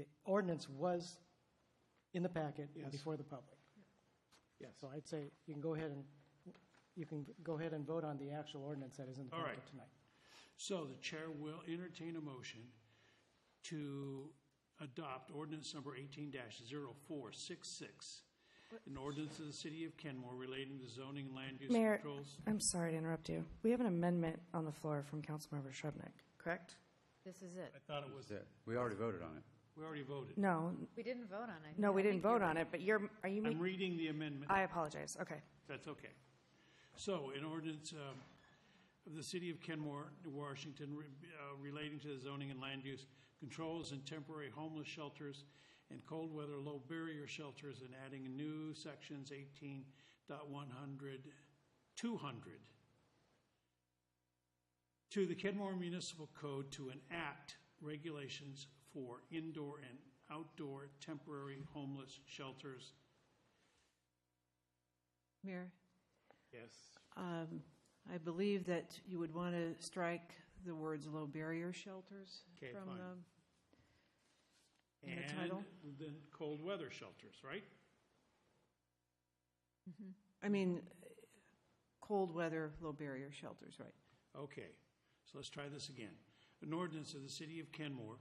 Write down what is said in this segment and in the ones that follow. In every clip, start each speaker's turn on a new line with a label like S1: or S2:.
S1: The ordinance was in the packet
S2: Yes.
S1: before the public.
S2: Yes.
S1: So I'd say you can go ahead and, you can go ahead and vote on the actual ordinance that is in the
S2: All
S1: packet
S2: right.
S1: tonight.
S2: So the chair will entertain a motion to adopt ordinance number eighteen 466 An ordinance of the city of Kenmore relating to zoning and land use
S3: Mayor,
S2: controls.
S3: I'm sorry to interrupt you. We have an amendment on the floor from Councilmember Shrubnik, correct?
S4: This is it.
S2: I thought it was,
S5: That's it. We already voted on it.
S2: we already voted.
S3: No,
S4: We didn't vote on it.
S3: no, we
S4: I
S3: didn't
S4: think you're
S3: vote on it, but you're, are you
S2: I'm
S3: making,
S2: reading the amendment.
S3: I apologize, okay.
S2: That's okay. So, an ordinance um, of the City of Kenmore, Washington, re- uh, relating to the zoning and land use controls and temporary homeless shelters and cold weather low barrier shelters and adding new sections 18.100, 200 to the Kenmore Municipal Code to enact regulations for indoor and outdoor temporary homeless shelters.
S6: Mayor,
S2: Yes.
S6: um, I believe that you would want to strike the words "low barrier shelters"
S2: Okay,
S6: from
S2: fine.
S6: the, in the
S2: And
S6: title.
S2: then cold weather shelters, right?
S6: I mean, cold weather, low barrier shelters, right?
S2: Okay, so let's try this again. An ordinance of the city of Kenmore,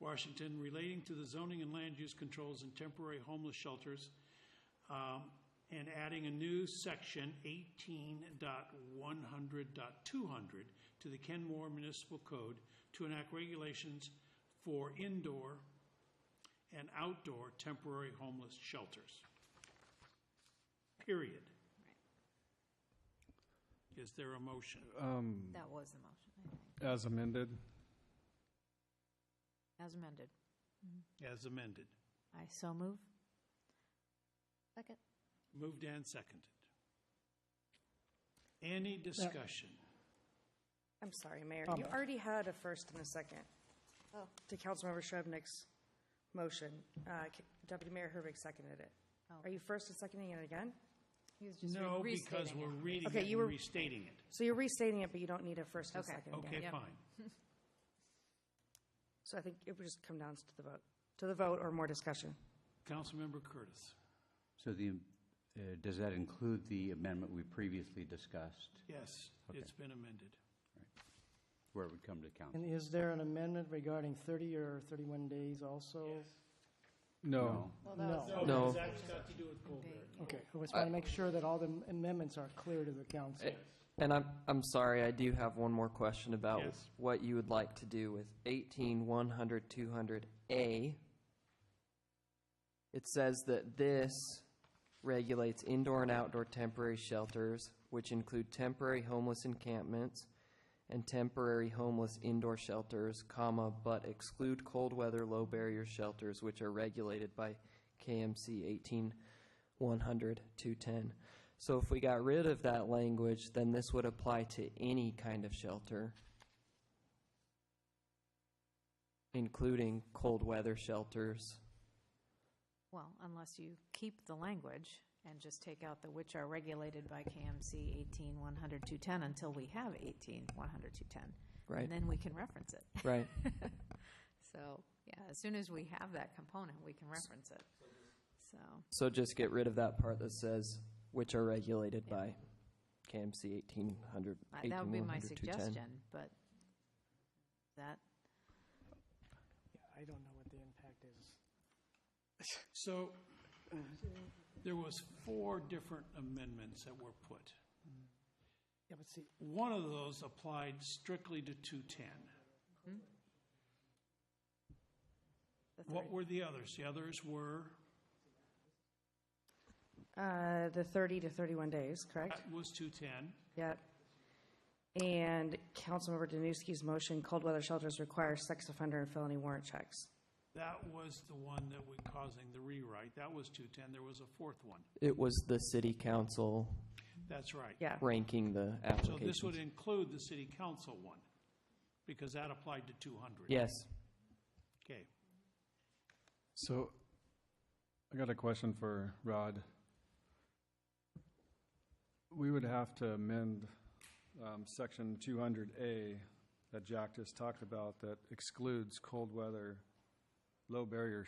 S2: Washington relating to the zoning and land use controls and temporary homeless shelters, um, and adding a new section 18.100.200 to the Kenmore Municipal Code to enact regulations for indoor and outdoor temporary homeless shelters. Period. Is there a motion?
S4: good. Mm. That was the motion, I think,
S7: As amended?
S4: as amended.
S2: As amended.
S4: I so move. Second.
S2: Moved and seconded. Any discussion?
S3: I'm sorry, Mayor. You
S1: Comment.
S3: already had a first and a second
S4: Oh.
S3: to Councilmember Shrubnik's motion. Uh, K- Deputy Mayor Herbig seconded it.
S4: Oh.
S3: Are you first and seconding it again?
S4: He was just re-
S2: No, because
S4: restating
S2: we're
S4: it.
S2: reading
S3: Okay,
S2: it
S3: you
S2: and
S3: were-
S2: restating it.
S3: So you're restating it, but you don't need a first and a
S4: Okay.
S3: second again.
S2: Okay,
S4: Yep.
S2: fine.
S3: So I think it would just come down to the vote, to the vote or more discussion.
S2: Councilmember Curtis.
S5: So the, uh, does that include the amendment we previously discussed,
S2: Yes, it's been amended.
S5: where it would come to council?
S1: And is there an amendment regarding 30 or 31 days also?
S7: No.
S4: Well, that was-
S1: No.
S7: No.
S2: That's got to do with Colbert.
S1: Okay, I just want to make sure that all the amendments are clear to the council.
S8: And I'm, I'm sorry, I do have one more question about
S2: Yes.
S8: what you would like to do with 18, 100, 200A. It says that this regulates indoor and outdoor temporary shelters, which include temporary homeless encampments and temporary homeless indoor shelters, comma, but exclude cold weather low barrier shelters, which are regulated by KMC 18, 100 210. So if we got rid of that language, then this would apply to any kind of shelter, including cold weather shelters.
S4: Well, unless you keep the language and just take out the which are regulated by KMC 18, 100, 210 until we have 18, 100, 210.
S8: Right.
S4: And then we can reference it.
S8: Right.
S4: So, yeah, as soon as we have that component, we can reference it. So,
S8: So just get rid of that part that says, which are regulated by KMC 1800.
S4: I- Uh, that would be my
S8: 18, 100, 210.
S4: suggestion, but that,
S1: Yeah, I don't know what the impact is.
S2: So uh, there was four different amendments that were put.
S1: Yeah, but see,
S2: One of those applied strictly to 210.
S4: the third,
S2: What were the others? The others were,
S3: Uh, The 30 to 31 days, correct?
S2: that was 210.
S3: Yep. And Councilmember Danuski's motion, cold weather shelters require sex offender and felony warrant checks.
S2: That was the one that was causing the rewrite. That was 210. There was a fourth one.
S8: It was the city council
S2: That's right.
S3: Yeah,
S8: ranking the
S2: So this would
S8: applications.
S2: include the city council one, because that applied to 200.
S8: Yes.
S2: Okay,
S7: So I got a question for Rod. We would have to amend um, section 200A that Jack just talked about that excludes cold weather low barrier